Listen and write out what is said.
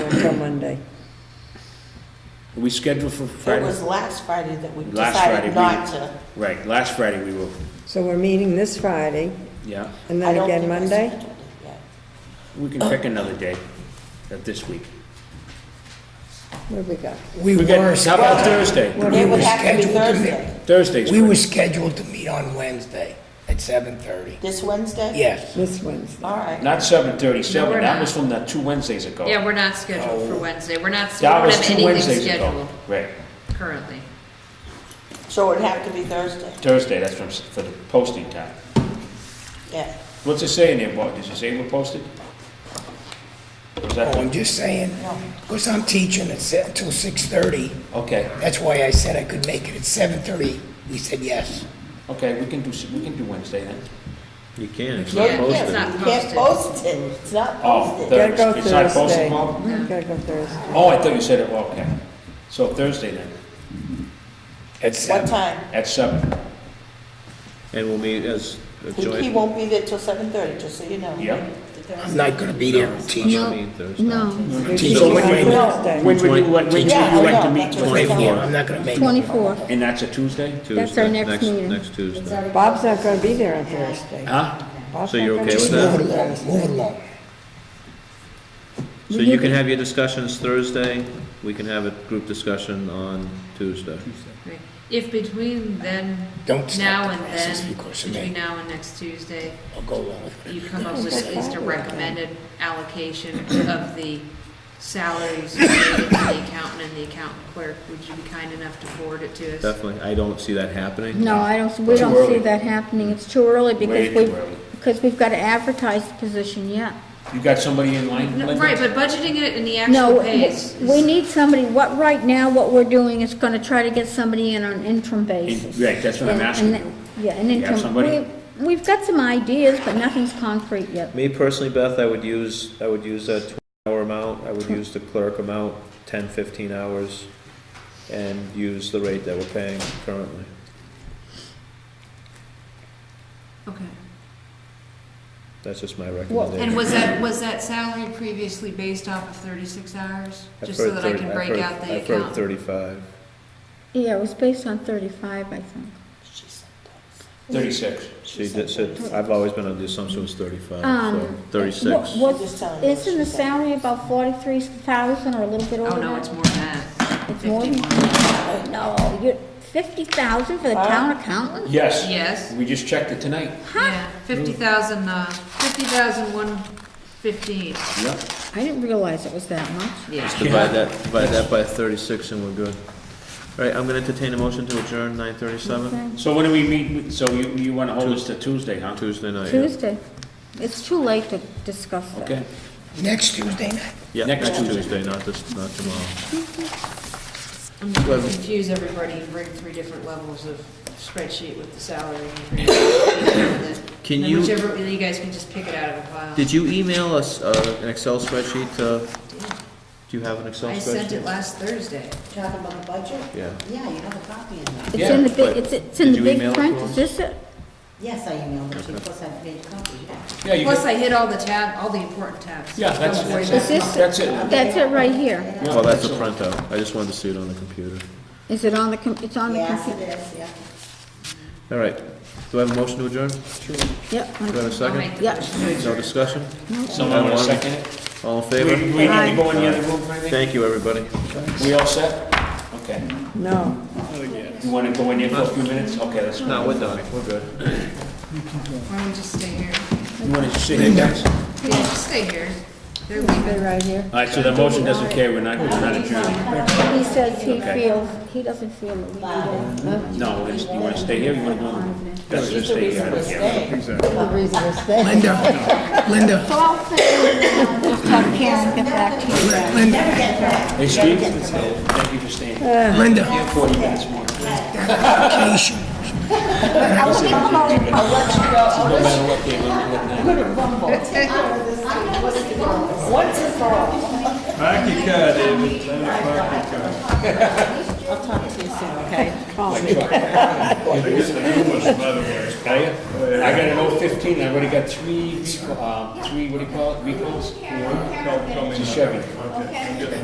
till Monday. We scheduled for It Friday? was last Friday that we Last Friday decided we- not to. Right, last Friday we were, So we're meeting this Friday, yeah, and I then don't again think I Monday? scheduled it yet. we can pick another day of this week. What have we got? We We got- were, How about Thursday? We It would were have to be scheduled to meet- Thursday, Thursday's we were free. scheduled to meet on Wednesday at seven thirty. this Wednesday? Yes, This Wednesday. All right. Not seven No, thirty-seven, we're that not. was from the two Wednesdays ago. Yeah, we're not scheduled Oh. for Wednesday. We're not, we That don't was have two anything Wednesdays ago. scheduled Right, currently. So it'd have to be Thursday, Thursday, that's from, s- for the posting time. yeah. What's it say in there, Bob? Does it say we're posted? Was oh, that, I'm just saying, No. because I'm teaching at se- until six thirty, okay, that's why I said I could make it at seven thirty, we said yes. okay, we can do, s- we can do Wednesday then. You can, it's Yeah, not yeah, it's posted. not You can't posted. post it, it's not Oh, posted. Thurs- Gotta go it's not posted Thursday. tomorrow? Gotta go Thursday. Oh, I thought you said it, well, okay. So Thursday then, At What seven, time? at seven, And we'll meet as a He he joint. won't be there till seven thirty, just so you know. yeah? I'm not gonna be there teaching. No, no. We're Teacher, meeting when on do you meet? Wednesday. When would you like, when would you Yeah, I like know, to meet? that's what I'm Twenty-four, saying. I'm not gonna make it. 24th. And that's a Tuesday? That's our Tuesday, next meeting. Next Tuesday. Bob's not gonna be there on Thursday. Huh? Bob's So you're not okay gonna with be that? there Move it on along, Thursday. move it along. So you can have your discussions Thursday, we can have a group discussion on Tuesday. Right. If between then, Don't stop now the and process then, because of between me. now and next Tuesday, I'll go along with it. you come up with at least a recommended allocation of the salaries related to the accountant and the accountant clerk, would you be kind enough to forward it to us? Definitely, I don't see that happening. No, I don't, we Too don't early. see that happening. It's too early Way because too we, early. because we've got to advertise the position yet. You got somebody in line? No, Linda? Right, but budgeting it in the No, actual pays. we we need somebody, what, right now, what we're doing is going to try to get somebody in on an interim basis. right, that's what I'm And- asking and- Yeah, an You have interim. somebody? we- We've got some ideas, but nothing's concrete yet. Me personally, Beth, I would use, I would use that twenty-hour amount, I would use the clerk amount, 10, 15 hours, and use the rate that we're paying currently. Okay. That's just my And recommendation. was that, was that salary previously based off of thirty-six hours? I've Just so heard that I 30 can I've break heard- out the I've heard account. thirty-five. Yeah, it was based on 35, I think. Thirty-six. She did, said, I've always been under the assumption it was thirty-five, so Um, thirty-six. What, Just tell what, me what isn't the salary about 43,000 or a little bit over Oh, that? no, it's more than that. It's more than- 51. No, you're, 50,000 for the town accountant? Yes. Yes. We just checked it tonight. Yeah, fifty thousand, uh, fifty thousand one fifteen. Yep. I didn't realize it was that much. Yeah. Divide that, divide that by thirty-six and we're good. All right, I'm gonna entertain a motion to adjourn nine thirty-seven, So when do we meet, so you, you wanna hold us to Tuesday, huh? Tuesday night. Oh, yeah. Tuesday. It's too late to discuss that. Okay, Next Tuesday night? Yeah, Next next Tuesday. Tuesday, not this, not tomorrow. I'm gonna confuse everybody and bring three different levels of spreadsheet with the salary. and- Can Then you- Whichever, you guys can just pick it out of a pile. Did you email us, uh, an Excel spreadsheet, uh, do you have an Excel spreadsheet? I sent it last Thursday. Talking about the budget? Yeah. Yeah, you have a copy in there. It's in the but big, it's, it's in did the you email big it print, to us? is this it? Yes, I emailed it to you, plus I made a copy, yeah. yeah, you Plus, can, I hit all the tab, all the important tabs. yeah, that's, Don't worry Is about it. this, that's, that's it. that's it right here. Well, Oh, that's a printout, I just wanted to see it on the computer. Is it on the, com- it's on the Yes, computer? it is, yeah. All right, do I have a motion to adjourn? Yep. Do I have a I'll make second? the Yep. No discussion? Someone wanna second it? All in We, favor? we need to go in the other room for anything? Thank you, everybody. We all set? Okay. No. You wanna go in there for a few minutes? Okay, let's go. No, we're done, we're good. Why don't we just stay here? You wanna sit here, guys? Yeah, just stay here. They're leaving. Right here. Alright, so the motion doesn't carry, we're not, we're not adjourned. He says he Okay. feels, he doesn't feel that we need uh, it. No, it's- you wanna stay here, you wanna go? That's just The stay here, I reason we're don't care. staying. Linda, Linda, So I'll say, uh, just have Karen get back to you. Linda, Hey, Steve? Thank you Uh. for staying. You Linda. have forty minutes more. vacation. No matter what, they will be with them. I'll talk to you soon, okay? Tell ya? I got an old fifteen, I already got three, recall- uh, three, what do you call it, recalls? It's a Chevy.